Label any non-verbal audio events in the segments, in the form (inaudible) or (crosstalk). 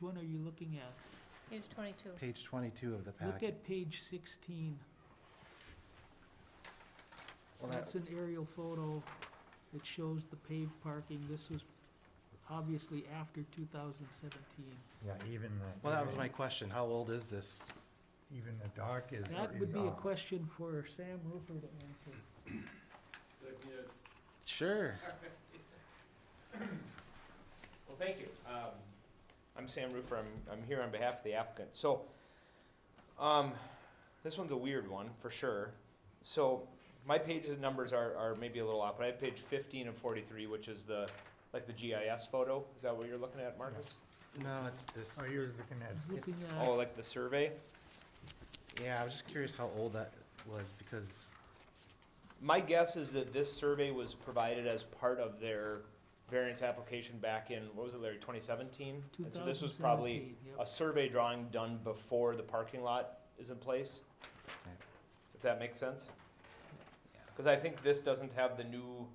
one are you looking at? Page 22. Page 22 of the Look packet. at page 16. Well, That's that- an aerial photo that shows the paved parking. This was obviously after 2017. Yeah, even the. Well, that was my question. How old is this? Even the dock is. That would is be um, a off. question for Sam Roofer to (laughs) answer. Sure. Well, thank you. Um, I'm Sam Roofer. I'm, I'm here on behalf of the applicant. So, um, this one's a weird one, for sure. So, my page's numbers are, are maybe a little off, but I have page fifteen of forty-three, which is the, like the GIS photo. Is that what you're looking at, Marcus? No, it's this. Oh, you're looking at, Looking Oh, at, like the survey? Yeah, I was just curious how old that was because, My guess is that this survey was provided as part of their variance application back in, what was it, Larry, twenty seventeen? And so this was probably 2017, yep. a survey drawing done before the parking lot is in place, okay, if that makes sense? yeah. Because I think this doesn't have the new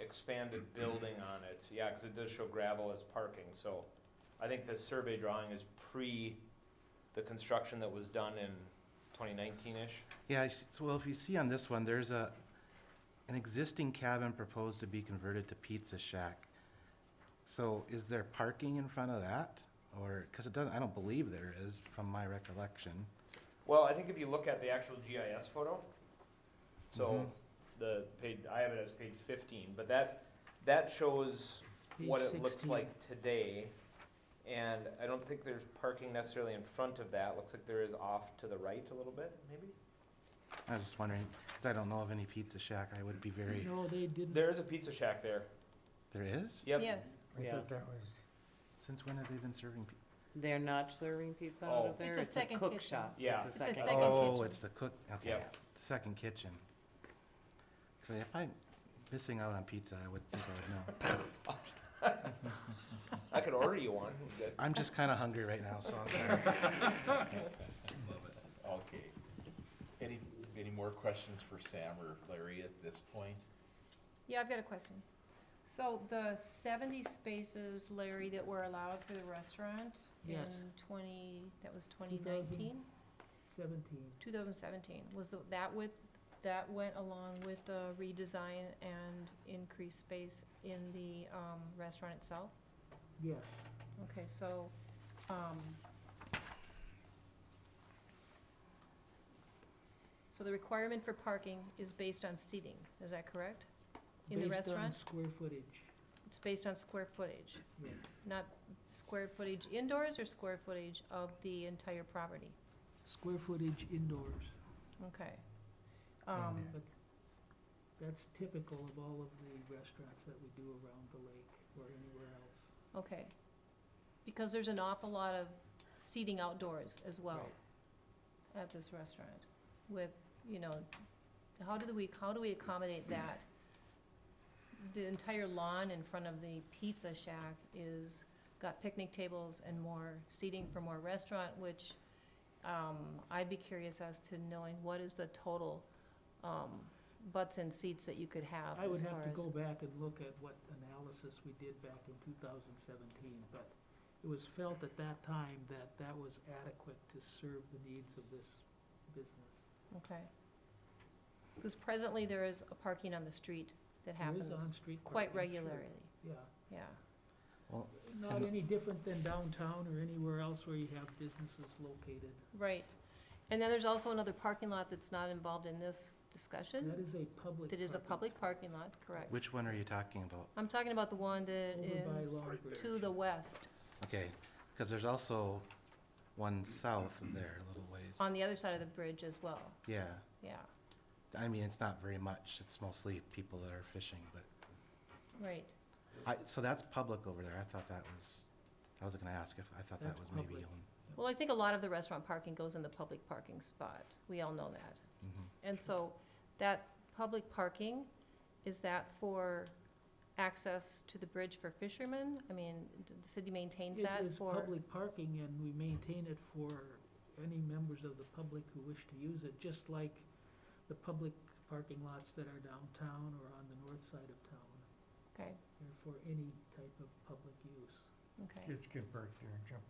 expanded building on it. Yeah, because it does show gravel as parking, so I think this survey drawing is pre the construction that was done in twenty nineteen-ish. Yeah, I s- so, well, if you see on this one, there's a, an existing cabin proposed to be converted to pizza shack. So is there parking in front of that? Or, because it doesn't, I don't believe there is from my recollection. Well, I think if you look at the actual GIS photo, Mhm. so the page, I have it as page fifteen, but that, that shows what Page it looks 16. like today. And I don't think there's parking necessarily in front of that. Looks like there is off to the right a little bit, maybe? I was just wondering, because I don't know of any pizza shack, I would be very, no, they didn't. There is a pizza shack there. there is? Yep. Yes, I Yes. thought that was, Since when have they been serving? pi- They're not serving pizza out Oh. of there? It's a second cook kitchen. shop. Yeah. It's a It's a second. second- Oh, kitchen. it's the cook, okay, Yep. the second kitchen. So if I'm missing out on pizza, I would think I would know. I could order you one. I'm just kind of hungry right now, so I'm sorry. Okay. Any, any more questions for Sam or Larry at this point? yeah, I've got a question. So the 70 spaces, Larry, that were allowed for the restaurant Yes. in 20, that was 2000. 2019? 17. 2017, was that with, that went along with the redesign and increased space in the um, restaurant itself? Yes, Okay, so, um, so the requirement for parking is based on seating, is that correct? In the based on restaurant? square footage. It's based on square footage, Yeah. not square footage indoors or square footage of the entire property? Square footage indoors. Okay. Um, But That's typical of all of the restaurants that we do around the lake or anywhere else. okay. Because there's an awful lot of seating outdoors as well Right. at this restaurant with, you know, how do we, how do we accommodate that? The entire lawn in front of the pizza shack is, got picnic tables and more seating for more restaurant, which, um, I'd be curious as to knowing what is the total, um, butts and seats that you could have I would as have far to as. go back and look at what analysis we did back in 2017, but it was felt at that time that that was adequate to serve the needs of this business. Okay. Because presently, there is a parking on the street that There is happens on-street parking. quite sure, regularly, Yeah, yeah. Well, not any different than downtown or anywhere else where you have businesses located. Right. And then there's also another parking lot that's not involved in this That discussion, is a public. that is a parking public parking lot, correct. which one are you talking about? I'm talking about the one that Over by is Robert. to the west, Okay, because there's also one south of there a little ways. on the other side of the bridge as well, Yeah, yeah, I mean, it's not very much, it's mostly people that are fishing, but, right. I, so that's public over there, I thought that was, I was gonna ask if, I thought that That's was maybe public. owned. Well, I think a lot of the restaurant parking goes in the public parking spot, we all know that. Mhm. And so that public parking, is that for access to the bridge for fishermen? I mean, d- the city maintains It that is for? public parking, and we maintain it for any members of the public who wish to use it, just like the public parking lots that are downtown or on the north side of town. Okay, They're for any type of public use. okay. kids get burnt there and jump